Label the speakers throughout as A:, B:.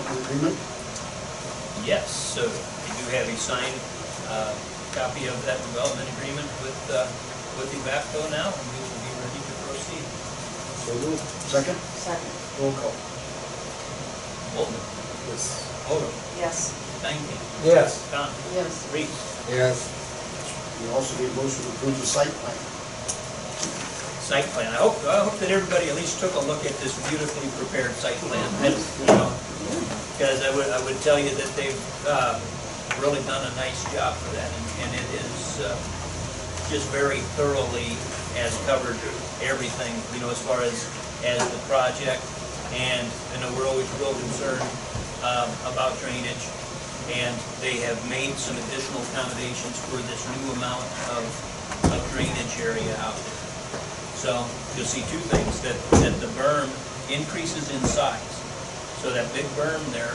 A: agreement?
B: Yes, so we do have a signed uh, copy of that development agreement with, uh, with Evapco now, and we will be ready to proceed.
A: So moved. Second?
C: Second,
A: Roll call.
B: Holden,
A: Yes.
B: Holden,
C: yes,
B: Stankin,
D: Yes.
B: Con,
C: yes,
B: Reese.
D: Yes.
A: We also need a motion to approve the site plan.
B: Site plan, I hope, I hope that everybody at least took a look at this beautifully prepared site plan. That's, you know, Because I would, I would tell you that they've um, really done a nice job for that, and- and it is uh, just very thoroughly has covered everything, you know, as far as, as the project, and I know we're always real concerned um, about drainage, and they have made some additional accommodations for this new amount of, of drainage area out there. So you'll see two things, that, that the berm increases in size. So that big berm there,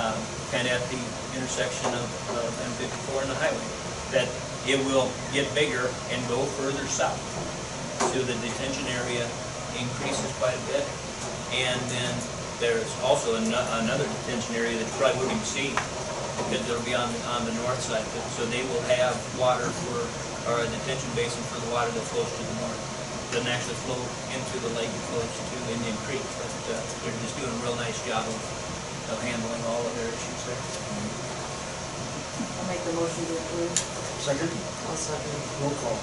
B: um, kind of at the intersection of of M54 and the highway, that it will get bigger and go further south. So the detention area increases quite a bit. And then there's also ano- another detention area that you probably wouldn't see because it'll be on, on the north side. But- So they will have water for, or a detention basin for the water that flows to the north. Doesn't actually flow into the lake, it flows to Indian Creek, but uh, they're just doing a real nice job of, of handling all of their issues there.
C: I'll make the motion to approve.
A: Second?
C: I'll second.
A: Roll call.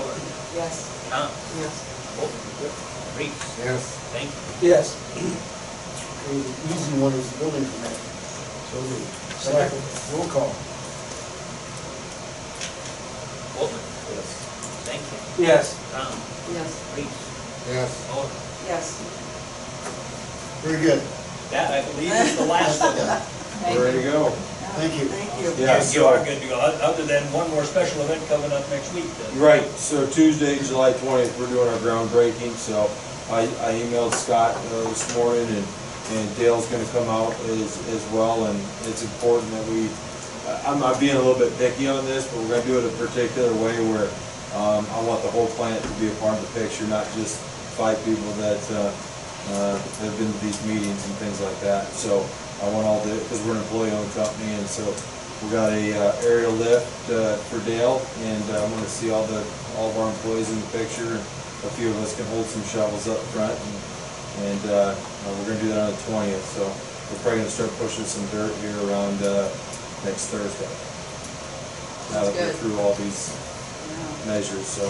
B: Over.
C: Yes,
B: Tom,
C: yes,
B: Holden, Reeves,
D: Yes.
B: thank you.
D: Yes.
A: Okay, the easy one is the building permit. So moved. Second? Roll call.
B: Holden,
D: Yes.
B: thank you.
D: Yes.
B: Tom,
C: yes,
B: Reeves,
D: Yes.
B: Holden.
C: yes.
A: Very good.
B: That, I believe, is the last of them.
C: Thank
D: Ready to go.
A: Thank you.
C: Thank you.
B: You-
D: Yeah,
B: You are
D: so-
B: good to go, oth- other than one more special event coming up next week. then.
D: Right, so Tuesday, July twentieth, we're doing our groundbreaking, so I, I emailed Scott uh, this morning and, and Dale's gonna come out as, as well, and it's important that we, I- I'm, I'm being a little bit picky on this, but we're gonna do it a particular way where, um, I want the whole plant to be a part of the picture, not just five people that, uh, uh, have been to these meetings and things like that, so I want all the, because we're an employee-owned company, and so we got a uh, aerial lift uh, for Dale, and uh, I'm gonna see all the, all of our employees in the picture. A few of us can hold some shovels up front, and, and uh, uh, we're gonna do that on the twentieth, so we're probably gonna start pushing some dirt here around uh, next Thursday. Now that
C: Sounds
D: we're
C: good.
D: through all these
C: Yeah.
D: measures, so.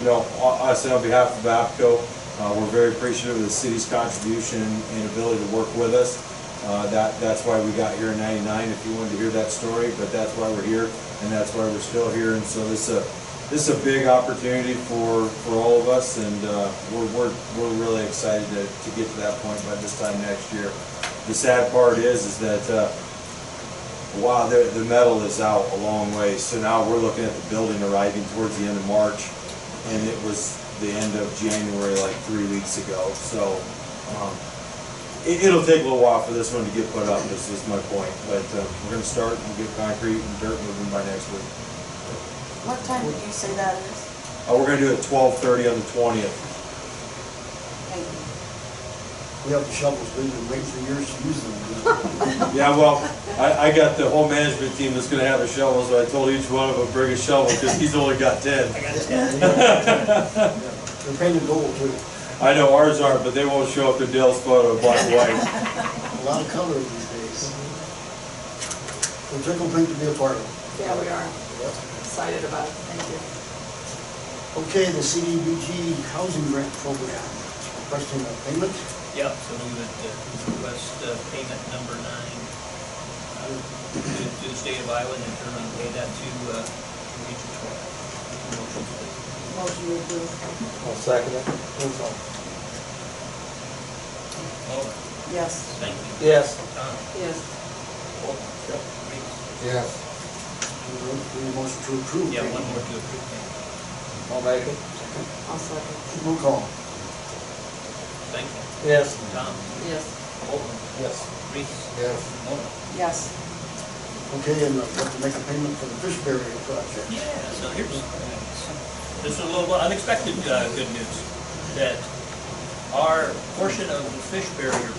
D: You know, I I say on behalf of APCO, uh, we're very appreciative of the city's contribution and ability to work with us. Uh, That, that's why we got here in ninety-nine, if you wanted to hear that story, but that's why we're here, and that's why we're still here. And so this is a, this is a big opportunity for, for all of us, and uh, we're, we're, we're really excited to, to get to that point by this time next year. The sad part is, is that uh, Wow, the, the metal is out a long way, so now we're looking at the building arriving towards the end of March, and it was the end of January, like three weeks ago, so, um, it, it'll take a little while for this one to get put up, this is my point, but, uh, we're gonna start and get concrete and dirt moving by next week.
C: What time did you say that is?
D: Uh, we're gonna do it twelve thirty on the twentieth,
C: Thank you.
A: We have the shovels, we've been waiting for years to use them.
D: yeah, well, I, I got the whole management team that's gonna have a shovel, so I told each one of them, bring a shovel, cause he's only got ten.
B: I got ten.
A: They're painted gold too.
D: I know ours aren't, but they won't show up to Dale's photo, black and white.
A: A lot of color these days. We're tickled pink to be a part of.
C: Yeah, we are excited about it, thank you.
A: Okay, the CDBG Housing Grant Program, requesting a payment.
B: Yep, so we would uh, request uh, payment number nine uh, to to the state of Iowa and in turn on pay that to uh, to Region 12. Motion, please.
C: Motion to approve.
D: I'll second it.
A: Roll call.
B: Over.
C: Yes,
B: Thank you.
D: Yes.
B: Tom,
C: yes,
B: Holden, Reeves.
D: Yes.
A: We need a motion to approve.
B: Yeah, one more to approve.
D: I'll make it.
C: I'll second.
A: Roll call.
B: Thank you.
D: Yes.
B: Tom,
C: Yes,
B: Holden,
D: Yes.
B: Reeves.
D: Yes.
B: Over.
C: yes,
A: Okay, and uh, we have to make a payment for the fish barrier project.
B: Yeah, so here's, this is a little unexpected uh, good news, that our portion of the fish barrier